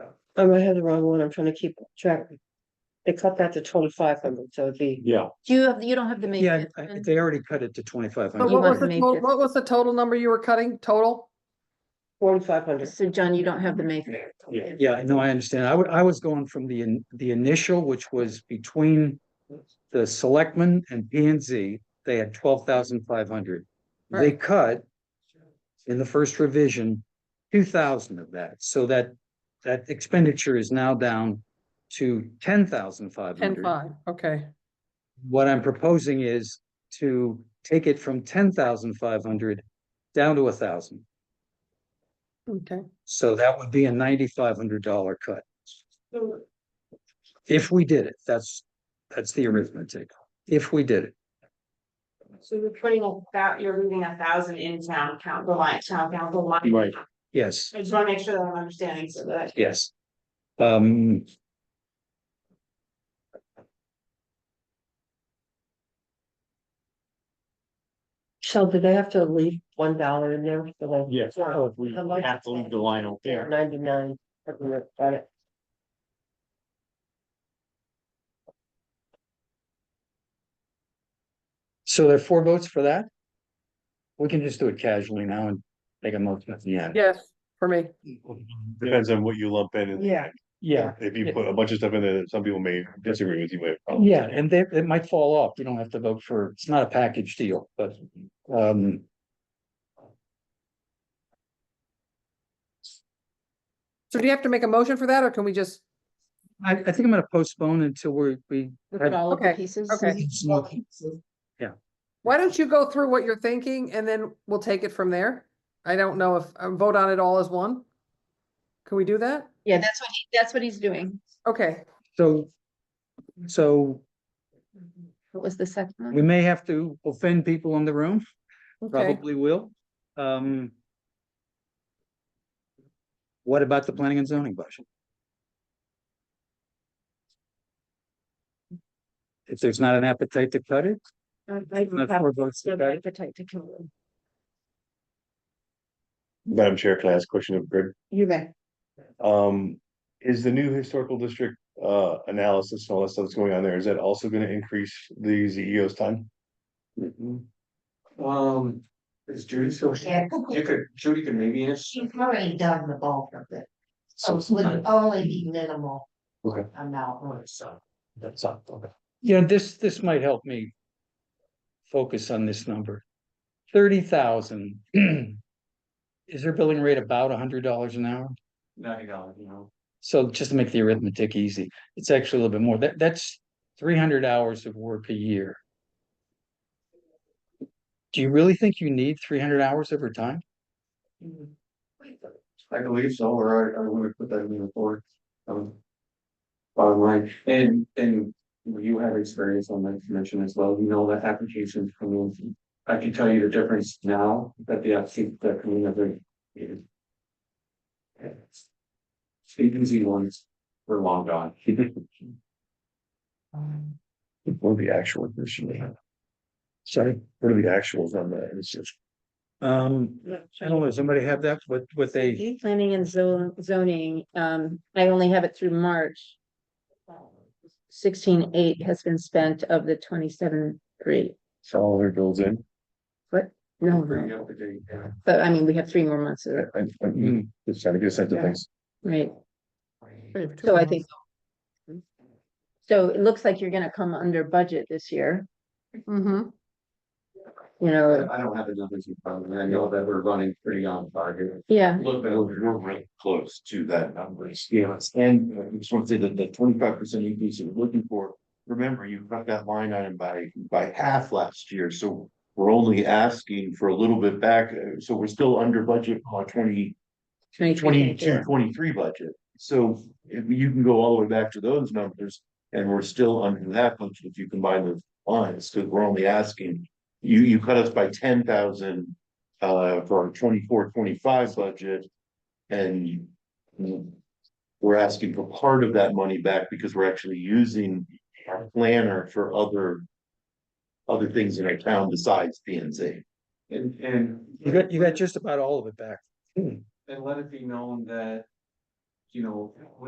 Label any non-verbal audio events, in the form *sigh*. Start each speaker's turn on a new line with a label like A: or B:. A: Oh, I'm I had the wrong one, I'm trying to keep track. They cut that to twenty-five hundred, so it'd be,
B: Yeah,
C: Do you have, you don't have the main.
D: Yeah, I- they already cut it to twenty-five
E: But
C: You
D: hundred.
E: what
C: wanted
E: was
C: to
E: the,
C: make
E: total-
C: it-
E: what was the total number you were cutting, total?
A: forty-five hundred.
C: So John, you don't have the main.
B: Yeah.
D: Yeah, no, I understand. I wa- I was going from the, in- the initial, which was between the selectmen and P and Z, they had twelve thousand five hundred. They
E: Right.
D: cut in the first revision, two thousand of that, so that, that expenditure is now down to ten thousand five
E: Ten
D: hundred.
E: five, okay,
D: What I'm proposing is to take it from ten thousand five hundred down to a thousand.
E: okay.
D: So that would be a ninety-five hundred dollar cut. If we did it, that's, that's the arithmetic. If we did it,
F: So you're putting about, you're moving a thousand in town council line, town council line.
B: Right.
D: yes,
F: I just wanna make sure that I'm understanding so that.
D: yes. Um.
A: So do they have to leave one dollar in there for like?
B: yes,
G: Oh,
B: we have to leave the line out there.
A: Ninety-nine, something like that.
D: So there are four votes for that? We can just do it casually now and make a motion at the end.
E: Yes, for me,
G: Depends on what you lump in, and
A: Yeah.
D: Yeah,
G: if you put a bunch of stuff in there, that some people may disagree with you, but.
D: yeah, and they, it might fall off. You don't have to vote for, it's not a package deal, but, um.
E: so do you have to make a motion for that, or can we just,
D: I, I think I'm gonna postpone until we're, we.
C: Look at all of the
E: Okay,
C: pieces.
E: okay. why don't you go through what you're thinking, and then we'll take it from there? I don't know if, um, vote on it all as one? Can we do that?
C: Yeah, that's what, he- that's what he's doing.
E: Okay,
D: So, so
C: What was the second
D: we
C: one?
D: may have to offend people in the room,
E: okay,
D: probably will. Um. What about the planning and zoning budget? If there's not an appetite to cut it, not four votes to cut it,
G: Madam Chair, can I ask a question of Greg?
F: You may.
G: Um, is the new historical district, uh, analysis and all that stuff that's going on there, is that also gonna increase the CEO's time? Mm-hmm.
H: Um, is Judy still? You could, Judy could maybe answer.
I: She's already done the bulk of
F: Oh,
I: it, so it would only be minimal.
H: Okay.
I: Amount, or so.
H: That's up, okay.
D: you know, this, this might help me. Focus on this number. Thirty thousand. *clears throat* Is their billing rate about a hundred dollars an hour?
H: Ninety dollars, you know.
D: So just to make the arithmetic easy, it's actually a little bit more. That, that's three hundred hours of work a year. Do you really think you need three hundred hours over time?
I: Mm-hmm.
H: I believe so, or I, I would have put that in the report. Um. Bottom line, and, and you have experience on that commission as well, you know that applications come in. I can tell you the difference now that the applicants that come in every. The easy ones were long gone.
D: *laughs*
G: What are the actual question?
D: Sorry.
G: What are the actuals on that? It's just.
D: Um, I don't know, does somebody have that, what, what they,
C: Planning and zone, zoning, um, I only have it through March. Sixteen eight has been spent of the twenty-seven three.
G: All their bills in.
C: No,
H: Bring
C: no,
H: up the date, yeah.
C: but I mean, we have three more months of it,
G: I, I'm just trying to get a sense of things.
C: right? So I think. So it looks like you're gonna come under budget this year,
E: mm-hmm.
C: you know,
H: I don't have the numbers in front of me. I know that we're running pretty on target.
C: yeah,
H: Look, we're, we're really close to that number. Yes. And uh, I just want to say that the twenty-five percent increase you're looking for, remember, you cut that line item by, by half last year, so. We're only asking for a little bit back, uh, so we're still under budget on twenty,
C: twenty twenty.
H: twenty-two, twenty-three budget. So if you can go all the way back to those numbers, and we're still under that budget if you combine those lines, because we're only asking. You, you cut us by ten thousand, uh, for our 24-25 budget. And. mm, We're asking for part of that money back because we're actually using our planner for other. Other things in our town besides P and Z. And, and.
D: you got, you got just about all of it back.
H: And let it be known that. You know,